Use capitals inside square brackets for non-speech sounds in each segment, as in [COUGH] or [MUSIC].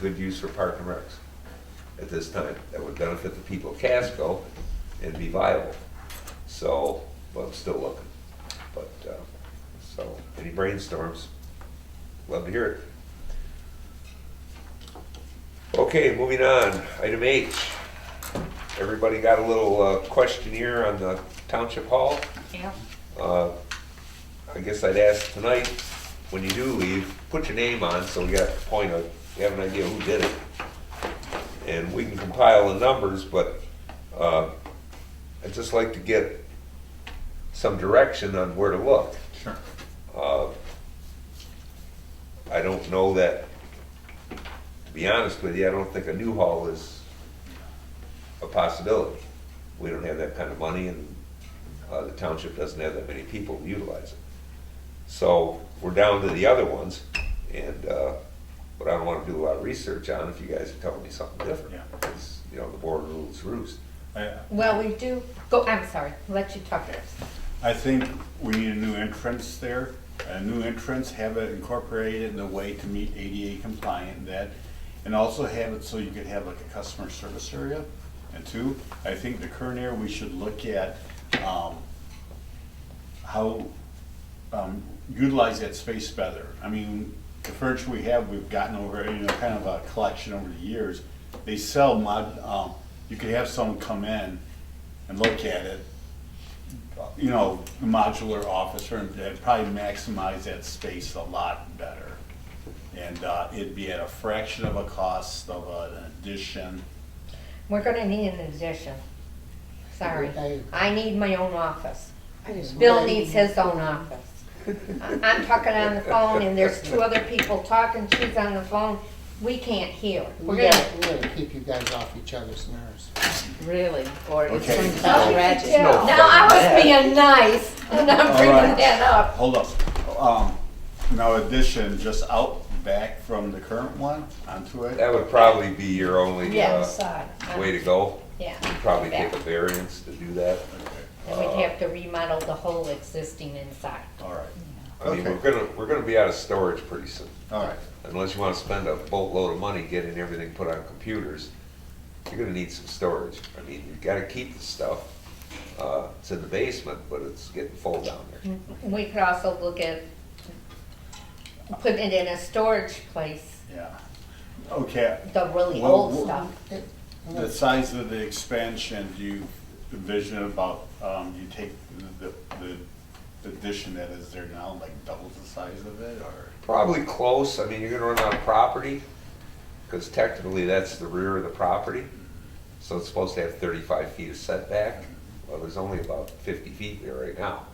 good use for park and recs at this time. That would benefit the people of Casco and be viable. So, but I'm still looking. But, uh, so, any brainstorms? Love to hear it. Okay, moving on, item H. Everybody got a little uh, questionnaire on the township hall? Yeah. Uh, I guess I'd ask tonight, when you do leave, put your name on, so we got a point of, we have an idea who did it. And we can compile the numbers, but uh, I'd just like to get some direction on where to look. Sure. Uh, I don't know that, to be honest with you, I don't think a new hall is a possibility. We don't have that kind of money, and uh, the township doesn't have that many people to utilize it. So we're down to the other ones, and, uh, but I don't want to do a lot of research on if you guys are telling me something different. Yeah. Because, You know, the board rules roost. I, Well, we do, go, I'm sorry, let you talk first. I think we need a new entrance there, a new entrance, have it incorporated in a way to meet ADA compliant and that, and also have it so you could have like a customer service area. And two, I think the current area, we should look at, um, how, um, utilize that space better. I mean, the furniture we have, we've gotten over, you know, kind of a collection over the years. They sell mod, um, you could have someone come in and look at it, you know, modular office, or that'd probably maximize that space a lot better. And uh, it'd be at a fraction of a cost of an addition. We're gonna need an addition. Sorry. Okay. I need my own office. I just Bill wanna- needs his own office. I- I'm talking on the phone and there's two other people talking, she's on the phone, we can't hear. We We're gonna. gotta, we gotta keep you guys off each other's nerves. Really? Or it's Okay. Oh. going to be Oh, Yeah. tragic? No. Now, I was being nice and I'm bringing Alright. that up. Hold up. Um, Now addition, just out back from the current one onto it. That would probably be your only Yeah, uh, sorry. way to go. Yeah. You'd Probably back. take a variance to do that. And we'd have to remodel the whole existing inside. All right, I mean, we're Okay. gonna, we're gonna be out of storage pretty soon, all right. unless you wanna spend a boatload of money getting everything put on computers. You're gonna need some storage, I mean, you gotta keep the stuff, uh, it's in the basement, but it's getting full down there. We could also look at putting it in a storage place, Yeah. Okay, the really Well, old well- stuff. The size of the expansion, do you envision about, um, you take the, the the addition that is there now, like doubles the size of it, or? Probably close, I mean, you're gonna run out of property, cause technically that's the rear of the property. So it's supposed to have thirty-five feet of setback, well, there's only about fifty feet there right now.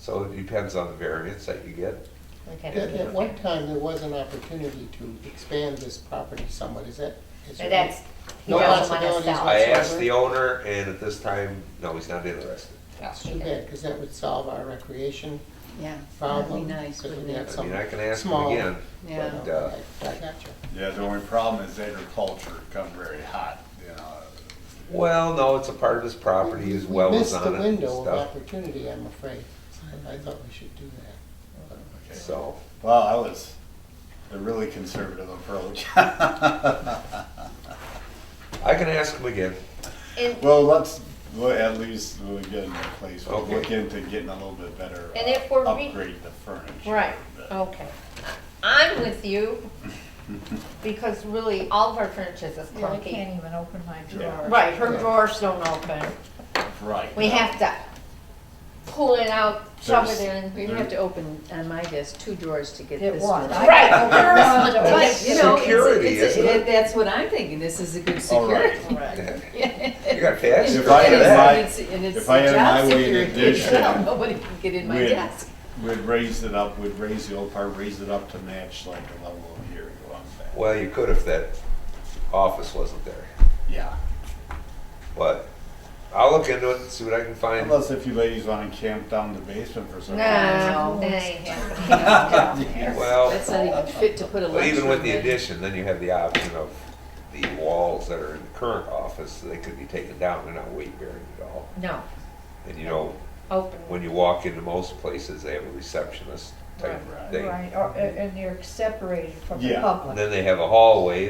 So it depends on the variance that you get. We'd have At, to at look one at- time, there was an opportunity to expand this property somewhat, is that? But is there- that's, he No doesn't want to possibilities sell. I it. asked the owner, and at this time, no, he's not interested. It's too bad, because that would solve our recreation Yeah, that'd be problem. nice, because wouldn't we have it? I mean, I can ask him Small. again. Yeah. but, but, uh, Oh, I I got you. Yeah, the only problem is agriculture come very hot, you know. Well, no, it's a part of his property, his well We is on Missed it the and window of stuff, opportunity, I'm afraid. I I thought we should do that. Okay. so. Well, I was a really conservative approach. [LAUGHS] I can ask him again. And, Well, let's, well, at least we'll get in a place, we'll Okay. look into getting a little bit better. And uh, if we're re- Upgrade the furniture. right, but- okay. I'm with you, because really, all of our furniture is Yeah, I clunky. can't even open my Yeah. drawer. Right, her drawers don't open. Right. We have to pull it out, shove it There's- in. We'd have to open, on my desk, two drawers to get It this was. one. I- Right. I opened the door. But, you know, Security, it's, it's, isn't it? it- that's what I'm thinking, this is a good All right. [LAUGHS] security. You [LAUGHS] If got fast. If I for had that. my- if I had my way in addition, [LAUGHS] Nobody can get in my we'd- desk. We'd raise it up, we'd raise the old part, raise it up to match like the level of here, go on back. Well, you could if that office wasn't there, Yeah, but I'll look into it and see what I can find. unless if you ladies wanna camp down the basement for some reason. No, that [LAUGHS] ain't happening. [LAUGHS] Well, That's not even fit to put a but lunchroom in. even with the addition, then you have the option of the walls that are in the current office, they could be taken down, they're not weight bearing at all. No, And you know, open. when you walk into most places, they have a receptionist type Right. thing. Right, or- and you're separated from the Yeah. public. And then they have a hallway